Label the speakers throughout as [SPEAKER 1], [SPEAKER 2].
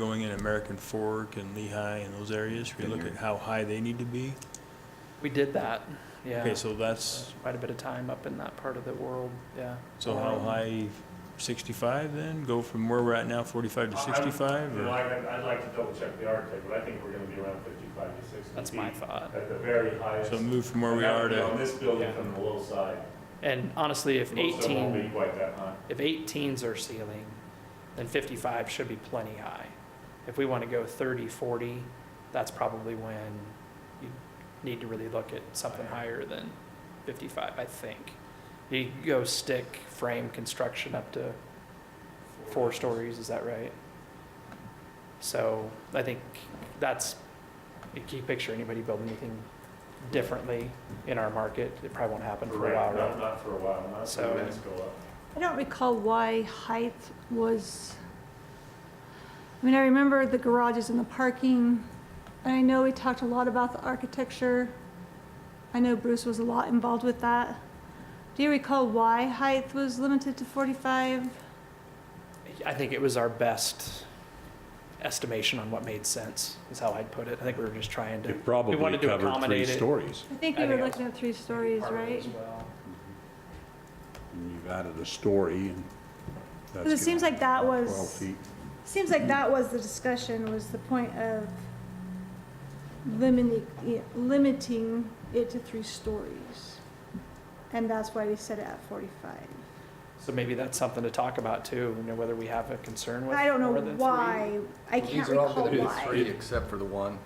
[SPEAKER 1] going in American Fork and Lehigh and those areas, we look at how high they need to be.
[SPEAKER 2] We did that, yeah.
[SPEAKER 1] Okay, so that's,
[SPEAKER 2] Quite a bit of time up in that part of the world, yeah.
[SPEAKER 1] so how high, sixty-five then? Go from where we're at now, forty-five to sixty-five?
[SPEAKER 3] You know,
[SPEAKER 1] or-
[SPEAKER 3] I'd, I'd like to double check the architect, but I think we're gonna be around fifty-five to sixty feet.
[SPEAKER 2] That's my thought.
[SPEAKER 3] At the very highest.
[SPEAKER 1] So move from where we
[SPEAKER 3] That would
[SPEAKER 1] are
[SPEAKER 3] be On
[SPEAKER 1] to,
[SPEAKER 3] this building
[SPEAKER 2] Yeah.
[SPEAKER 3] from the low side.
[SPEAKER 2] And honestly, if
[SPEAKER 3] Most of them won't be
[SPEAKER 2] eighteen,
[SPEAKER 3] quite that high.
[SPEAKER 2] if eighteens are ceiling, then fifty-five should be plenty high. If we want to go 30, 40, that's probably when you need to really look at something higher than fifty-five, I think. You go stick frame construction up to four stories, is that right? So I think that's a key picture, anybody building anything differently in our market, it probably won't happen for a
[SPEAKER 3] Correct.
[SPEAKER 2] while,
[SPEAKER 3] Not,
[SPEAKER 2] right?
[SPEAKER 3] not for a while, not
[SPEAKER 2] So-
[SPEAKER 3] until the rents go up.
[SPEAKER 4] I don't recall why height was, I mean, I remember the garages and the parking. And I know we talked a lot about the architecture. I know Bruce was a lot involved with that. Do you recall why height was limited to 45?
[SPEAKER 2] I think it was our best estimation on what made sense, is how I'd put it. I think we were just trying to.
[SPEAKER 5] It probably
[SPEAKER 2] We wanted to
[SPEAKER 5] covered
[SPEAKER 2] accommodate
[SPEAKER 5] three
[SPEAKER 2] it.
[SPEAKER 5] stories.
[SPEAKER 4] I think
[SPEAKER 2] I
[SPEAKER 4] we were
[SPEAKER 2] think
[SPEAKER 4] looking at three stories, right?
[SPEAKER 5] And you've added a story and that's.
[SPEAKER 4] Because it seems
[SPEAKER 5] gonna
[SPEAKER 4] like that
[SPEAKER 5] be
[SPEAKER 4] was-
[SPEAKER 5] 12 feet.
[SPEAKER 4] Seems like that was the discussion, was the point of limiting, limiting it to three stories. And that's why we set it at 45.
[SPEAKER 2] So maybe that's something to talk about too, you know, whether we have a concern with.
[SPEAKER 4] I don't know
[SPEAKER 2] more than three.
[SPEAKER 4] why, I can't recall
[SPEAKER 6] These are all gonna be
[SPEAKER 4] why.
[SPEAKER 6] three, except for the one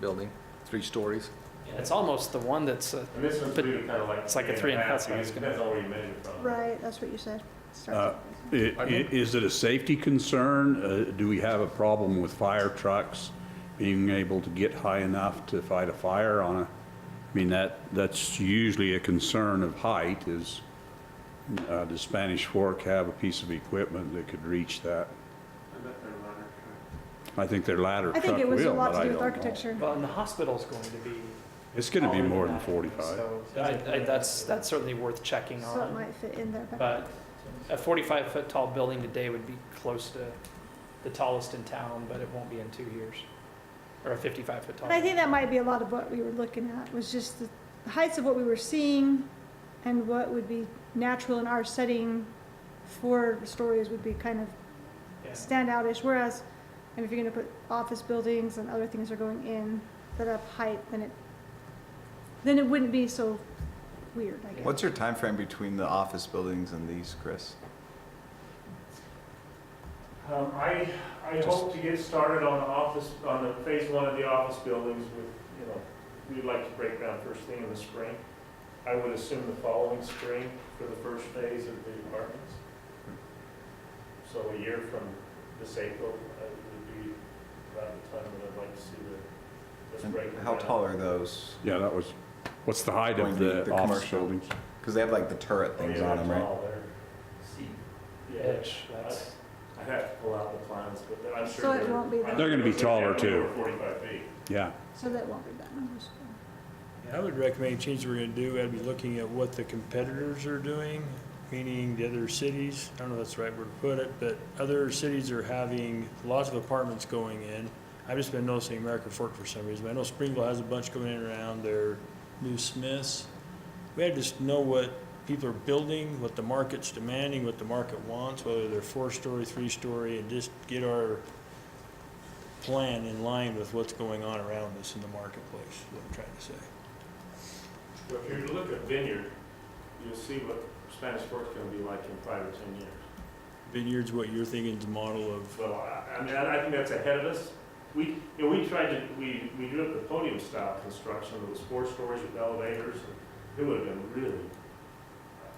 [SPEAKER 6] building, three stories.
[SPEAKER 2] It's almost the one that's, uh,
[SPEAKER 3] And this one's
[SPEAKER 2] But
[SPEAKER 3] really kind of like.
[SPEAKER 2] it's like a three and a half, so
[SPEAKER 3] because
[SPEAKER 2] it's
[SPEAKER 3] It
[SPEAKER 2] gonna-
[SPEAKER 3] depends on where you measure from.
[SPEAKER 4] Right, that's what you said.
[SPEAKER 5] Uh,
[SPEAKER 4] Starts with-
[SPEAKER 5] I- i- Is it a safety concern? Uh, Do we have a problem with fire trucks being able to get high enough to fight a fire on a, I mean, that, that's usually a concern of height is, uh, does Spanish Fork have a piece of equipment that could reach that? I think their ladder
[SPEAKER 4] I
[SPEAKER 5] truck will,
[SPEAKER 4] think it was a lot
[SPEAKER 5] but
[SPEAKER 4] to
[SPEAKER 5] I
[SPEAKER 4] do with
[SPEAKER 5] don't know.
[SPEAKER 4] architecture.
[SPEAKER 2] well, and the hospital's going to be.
[SPEAKER 5] It's gonna be
[SPEAKER 2] taller
[SPEAKER 5] more than
[SPEAKER 2] that,
[SPEAKER 5] 45.
[SPEAKER 2] So I, I, that's, that's certainly worth checking
[SPEAKER 4] So it
[SPEAKER 2] on.
[SPEAKER 4] might fit in there, but
[SPEAKER 2] But a forty-five foot tall building today would be close to the tallest in town, but it won't be in two years. Or a fifty-five foot tall.
[SPEAKER 4] and I think that might be a lot of what we were looking at, was just the heights of what we were seeing and what would be natural in our setting. Four stories would be kind of
[SPEAKER 2] Yeah.
[SPEAKER 4] standoutish, whereas, and if you're gonna put office buildings and other things are going in that up height, then it, then it wouldn't be so weird, I guess.
[SPEAKER 6] What's your time frame between the office buildings and these, Chris?
[SPEAKER 3] Um, I, I
[SPEAKER 6] Just-
[SPEAKER 3] hope to get started on the office, on the phase one of the office buildings with, you know, we'd like to break ground first thing in the spring. I would assume the following spring for the first phase of the apartments. So a year from this April, uh, would be about the time that I'd like to see the, this
[SPEAKER 6] And
[SPEAKER 3] break.
[SPEAKER 6] How tall are those?
[SPEAKER 5] Yeah, that was, what's the height
[SPEAKER 6] Going
[SPEAKER 5] of
[SPEAKER 6] to be
[SPEAKER 5] the
[SPEAKER 6] the
[SPEAKER 5] office
[SPEAKER 6] commercial.
[SPEAKER 5] buildings?
[SPEAKER 6] Because they have like the turret
[SPEAKER 3] Oh,
[SPEAKER 6] things on them, right?
[SPEAKER 3] Yeah,
[SPEAKER 2] Pitch, that's,
[SPEAKER 3] I have to pull out the plans, but I'm sure.
[SPEAKER 4] So it
[SPEAKER 3] they're-
[SPEAKER 4] won't be
[SPEAKER 3] I'm
[SPEAKER 4] that-
[SPEAKER 5] They're gonna be
[SPEAKER 3] sure they're
[SPEAKER 5] taller, too.
[SPEAKER 3] over Forty-five feet.
[SPEAKER 5] Yeah,
[SPEAKER 4] So that won't be that number. so-
[SPEAKER 1] I would recommend any change we're gonna do, I'd be looking at what the competitors are doing, meaning the other cities, I don't know if that's the right word to put it, but other cities are having lots of apartments going in. I've just been noticing American Fork for some reason, but I know Springville has a bunch going in around their new Smiths. We had to just know what people are building, what the market's demanding, what the market wants, whether they're four-story, three-story, and just get our plan in line with what's going on around us in the marketplace, is what I'm trying to say.
[SPEAKER 3] So if you were to look at Vineyard, you'll see what Spanish Fork's gonna be like in five or ten years.
[SPEAKER 1] Vineyards, what you're thinking is the model of, uh,
[SPEAKER 3] So I, I mean, I I think that's ahead of us. We, you know, we tried to, we, we drew up the podium style construction, it was four stories with elevators, and it would have been really,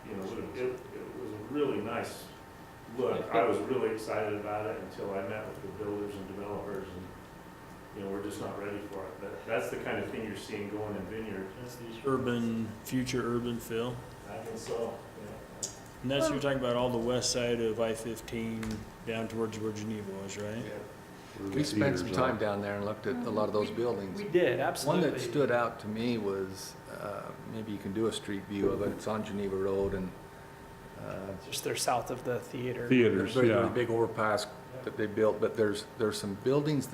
[SPEAKER 3] you know, would've- it, it was a really nice look. I was really excited about it until I met with the builders and developers, and, you know, we're just not ready for it. But that's the kind of thing you're seeing going in Vineyard.
[SPEAKER 1] urban, future urban feel.
[SPEAKER 3] I think so, yeah.
[SPEAKER 1] And that's, you're talking about all the west side of I-15 down towards where Geneva was, right?
[SPEAKER 6] We spent some time down there and looked at a lot of those buildings.
[SPEAKER 2] we did,
[SPEAKER 6] One
[SPEAKER 2] absolutely.
[SPEAKER 6] that stood out to me was, uh, maybe you can do a street view of it, it's on Geneva Road and uh,
[SPEAKER 2] Just they're south of the theater.
[SPEAKER 5] theaters,
[SPEAKER 6] very, really
[SPEAKER 5] yeah.
[SPEAKER 6] big overpass that they built, but there's, there's some buildings